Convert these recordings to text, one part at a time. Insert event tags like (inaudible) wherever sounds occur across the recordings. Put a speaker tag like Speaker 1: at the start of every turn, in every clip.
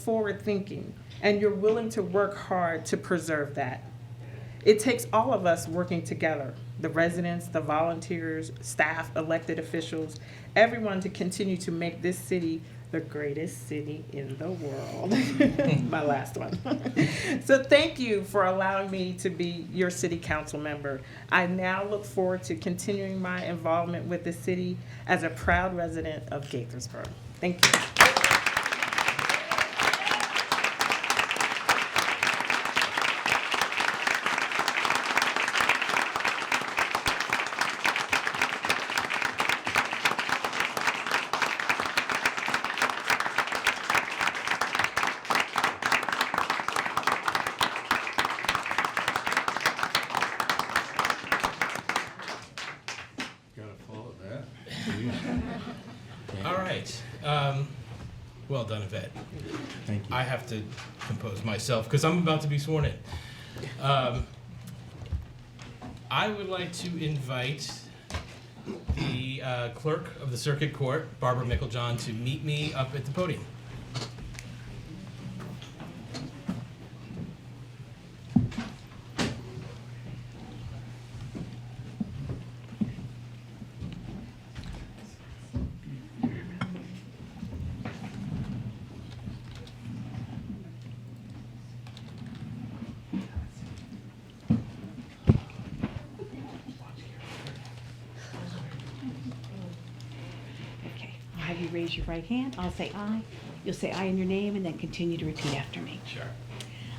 Speaker 1: forward thinking and you're willing to work hard to preserve that. It takes all of us working together the residents, the volunteers, staff, elected officials, everyone to continue to make this city the greatest city in the world. (laughs) My last one. so, thank you for allowing me to be your city council member. I now look forward to continuing my involvement with the city as a proud resident of Gaithersburg. Thank you.
Speaker 2: Gotta follow that.
Speaker 3: All right. Um, well done, Yvette.
Speaker 2: Thank
Speaker 3: I have to compose myself because I'm about to be sworn in. Um, I would like to invite the uh, clerk of the circuit court, Barbara Micklejohn, to meet me up at the podium.
Speaker 4: Okay, I'll have you raise your right hand. I'll say aye. You'll say aye in your name and then continue to repeat after me.
Speaker 3: Sure.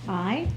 Speaker 4: I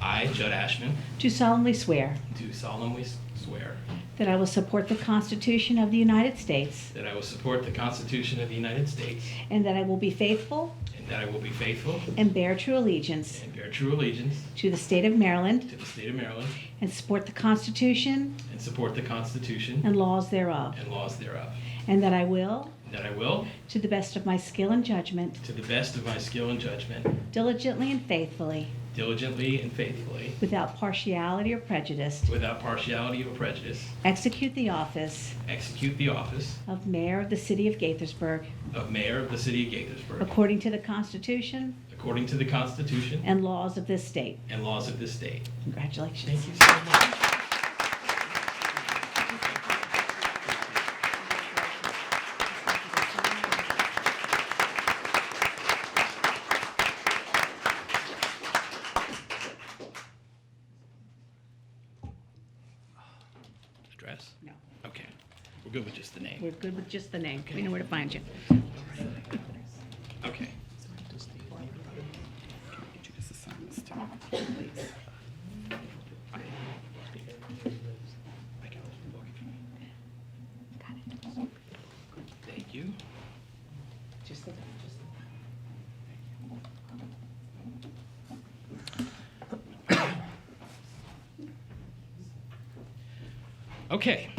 Speaker 3: I, Judd Ashman,
Speaker 4: do solemnly swear
Speaker 3: do solemnly swear
Speaker 4: that I will support the Constitution of the United States
Speaker 3: that I will support the Constitution of the United States
Speaker 4: and that I will be faithful
Speaker 3: and that I will be faithful
Speaker 4: and bear true allegiance
Speaker 3: and bear true allegiance
Speaker 4: to the state of Maryland
Speaker 3: to the state of Maryland
Speaker 4: and support the Constitution
Speaker 3: and support the Constitution
Speaker 4: and laws thereof,
Speaker 3: and laws thereof,
Speaker 4: and that I will,
Speaker 3: and that I will
Speaker 4: to the best of my skill and judgment,
Speaker 3: To the best of my skill and judgment,
Speaker 4: diligently and faithfully,
Speaker 3: diligently and faithfully,
Speaker 4: without partiality or prejudice,
Speaker 3: without partiality or prejudice,
Speaker 4: execute the office
Speaker 3: execute the office
Speaker 4: of Mayor of the City of Gaithersburg
Speaker 3: of Mayor of the City of Gaithersburg
Speaker 4: according to the Constitution
Speaker 3: according to the Constitution
Speaker 4: and laws of this state.
Speaker 3: and laws of this state.
Speaker 4: Congratulations.
Speaker 3: Thank you so much. Address?
Speaker 4: No,
Speaker 3: Okay. We're good with just the name.
Speaker 4: We're good with just the name. We know where to find you.
Speaker 3: Okay. Thank you. Okay.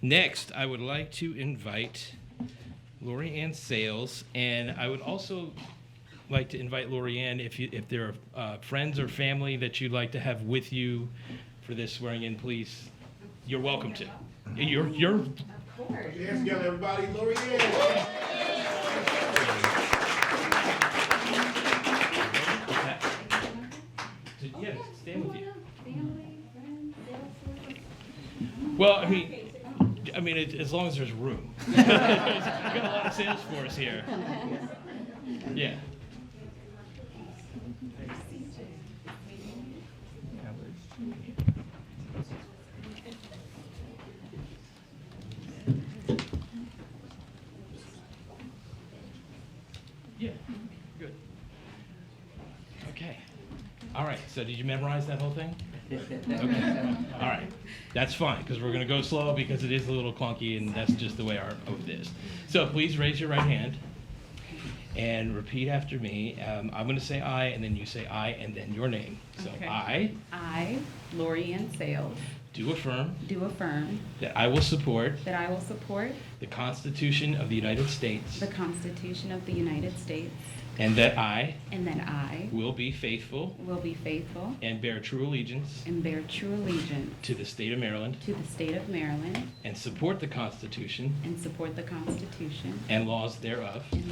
Speaker 3: Next, I would like to invite Lori Ann Sales, and I would also like to invite Lori Ann if you, if there are uh, friends or family that you'd like to have with you for this swearing-in, please, you're welcome to. You're, you're,
Speaker 2: Hands together, everybody, Lori Ann.
Speaker 3: yeah, stand with you. Well, I mean, I mean, it, as long as there's room. (laughs) we got a lot of sales force here. Yeah. Yeah. Good. Okay. All right. So, did you memorize that whole thing? Okay. All right. That's fine, because we're going to go slow because it is a little clunky, and that's just the way our oath is. So please raise your right hand and repeat after me. Um, I'm going to say I, and then you say I, and then your name. So
Speaker 5: Okay.
Speaker 3: I
Speaker 5: I, Lori Ann Sales,
Speaker 3: do affirm
Speaker 5: do affirm
Speaker 3: that I will support
Speaker 5: that I will support
Speaker 3: the Constitution of the United States
Speaker 5: the Constitution of the United States
Speaker 3: and that I
Speaker 5: and that I
Speaker 3: will be faithful
Speaker 5: will be faithful
Speaker 3: and bear true allegiance
Speaker 5: and bear true allegiance
Speaker 3: to the state of Maryland
Speaker 5: to the state of Maryland
Speaker 3: and support the Constitution
Speaker 5: and support the Constitution
Speaker 3: and laws thereof.
Speaker 5: and